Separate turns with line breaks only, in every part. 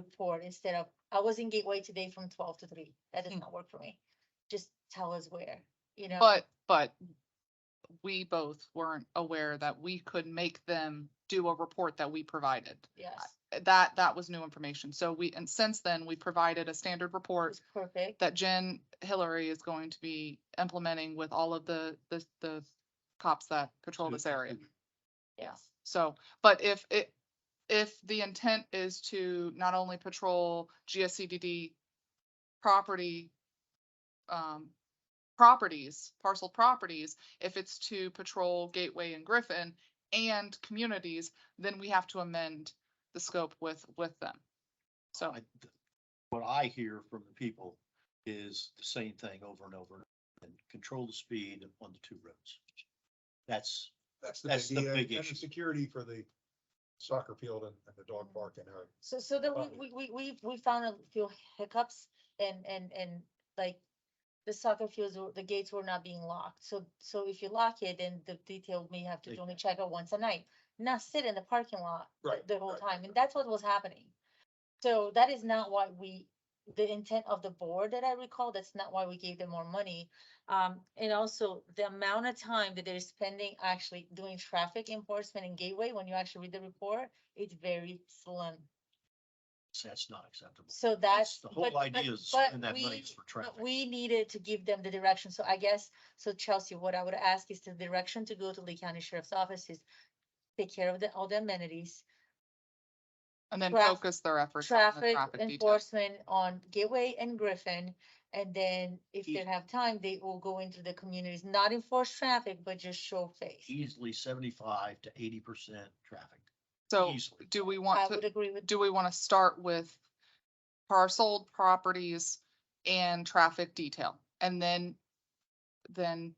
report instead of, I was in Gateway today from twelve to three. That does
Mm.
not work for me. Just tell us where, you know?
But, but we both weren't aware that we could make them do a report that we provided.
Yes,
That, that was new information. So we, and since then, we provided a standard report
it's perfect.
that Jen Hillary is going to be implementing with all of the, the, the cops that patrol this area.
Yes.
So, but if it, if the intent is to not only patrol GSCDD property, um, properties, parcel properties, if it's to patrol Gateway and Griffin and communities, then we have to amend the scope with, with them. So,
I- th- What I hear from the people is the same thing over and over and control the speed on the two roads. That's,
That's the
That's
big
the
deal,
big
and
issue.
the security for the soccer field and, and the dog park and our
So, so then
Well-
we, we, we, we, we found a few hiccups and, and, and like the soccer fields, were- the gates were not being locked. So, so if you lock it, then the detail may have to
They-
only check out once a night, not sit in the parking lot the-
Right,
the whole
right,
time. And that's what was happening. So that is not why we, the intent of the board that I recall, that's not why we gave them more money. Um, and also the amount of time that they're spending actually doing traffic enforcement in Gateway, when you actually read the report, it's very slim.
that's not acceptable.
So that's.
The whole
but-
idea
but-
is
but
spend that money
we-
is for
but
traffic.
We needed to give them the direction. So I guess, so Chelsea, what I would ask is the direction to go to Lee County Sheriff's Office is take care of the, all the amenities,
and then
traf-
focus their efforts on the
traffic
traffic detail.
enforcement on Gateway and Griffin. And then if they
Easy.
have time, they will go into the communities, not enforce traffic, but just show face.
Easily seventy-five to eighty percent traffic,
So
easily.
do we
I
want to?
would agree with,
do we want to start with parcel properties and traffic detail? And then, then,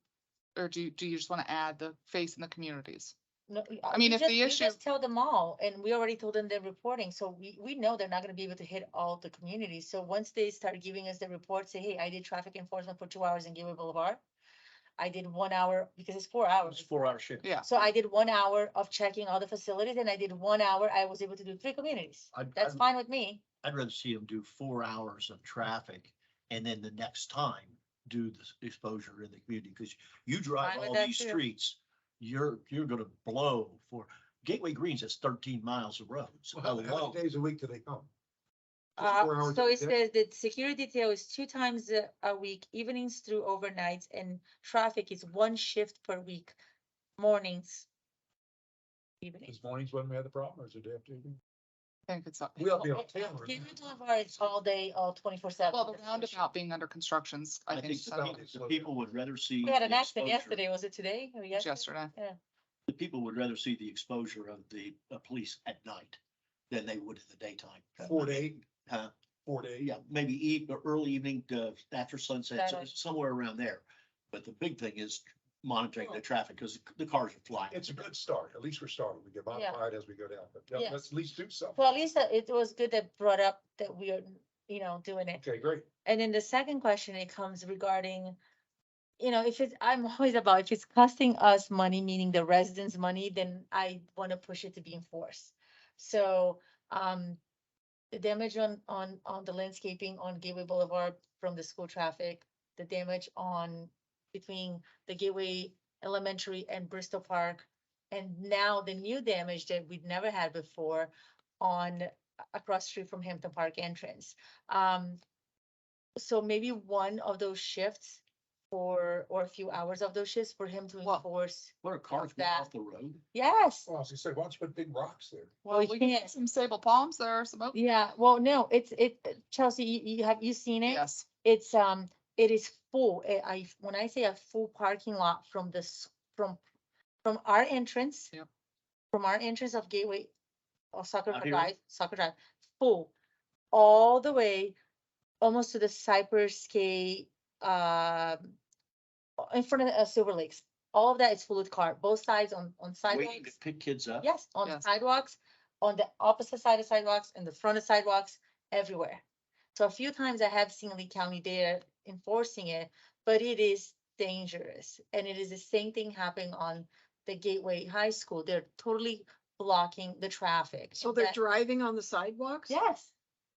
or do, you- do you just want to add the face in the communities?
no. y- uh,
mean,
you
if the
just- you
issue-
just Tell them all, and we already told them they're reporting, so we, we know they're not gonna be able to hit all the communities. So once they start giving us the report, say, hey, I did traffic enforcement for two hours in Gateway Boulevard. I did one hour, because it's four
It's
hours.
four hour shift.
Yeah.
So I did one hour of checking all the facilities, and I did one hour, I was able to do three communities.
I'd-
That's
I'd-
fine with me.
I'd rather see them do four hours of traffic and then the next time do the exposure in the community, because you drive
Fine with
all
that
these
too.
streets, you're, you're gonna blow for, Gateway Greens is thirteen miles of road, so
Well, How how
hello.
many days a week do they come? Just four
Uh,
hours
so
a
it
day?
says that security detail is two times a- a week, evenings through overnights, and traffic is one shift per week, mornings. Evening.
Is mornings when we had the problem or is it after? you-
I think it's, up-
We ought to be
Oh,
on camera.
Gateway Boulevard is all day, all twenty-four seven.
well, the roundabout being under constructions, I
I
think,
think
it's
said
about-
it
it's
the people would rather see.
We had
the
an accident
exposure-
yesterday, was it today? or
was
yesterday?
yesterday.
The people would rather see the exposure of the, uh police at night than they would in the daytime.
Four to eight,
Uh,
four to eight.
yeah, maybe eve, or early evening, uh, after sunset, so-
Saturday.
somewhere around there. But the big thing is monitoring the traffic, because the cars are flying.
It's a good start. At least we're starting. We can
Yeah.
modify it as we go down, but yeah,
Yes.
let's at least do something.
Well, at least uh, it was good that brought up that we are, you know, doing it.
Okay, great.
And then the second question, it comes regarding, you know, if it's, I'm always about, if it's costing us money, meaning the residents' money, then I want to push it to be enforced. So, um, the damage on, on, on the landscaping on Gateway Boulevard from the school traffic, the damage on between the Gateway Elementary and Bristol Park, and now the new damage that we'd never had before on, a- across street from Hampton Park entrance. Um, so maybe one of those shifts or, or a few hours of those shifts for him to
Well-
enforce.
What are cars going
that.
off the road?
Yes.
Well, as you said, why don't you put big rocks there?
Well,
we
we can
can't-
get some sable palms there, some, oak-
Yeah, well, no, it's, it, Chelsea, you, you have, you seen it?
yes,
It's, um, it is full. I- I, when I say a full parking lot from this, from, from our entrance.
Yep.
From our entrance of Gateway, or Soccer
Out here?
Drive, Soccer Drive, full, all the way, almost to the Cypress K, um in front of uh, Silver Lakes. All of that is full of car, both sides on, on
Waiting to
sidewalks.
pick kids up?
Yes, on the
Yes.
sidewalks, on the opposite side of sidewalks, and the front of sidewalks, everywhere. So a few times I have seen Lee County there enforcing it, but it is dangerous. And it is the same thing happening on the Gateway High School. They're totally blocking the traffic.
So
and
they're
that-
driving on the sidewalks?
Yes,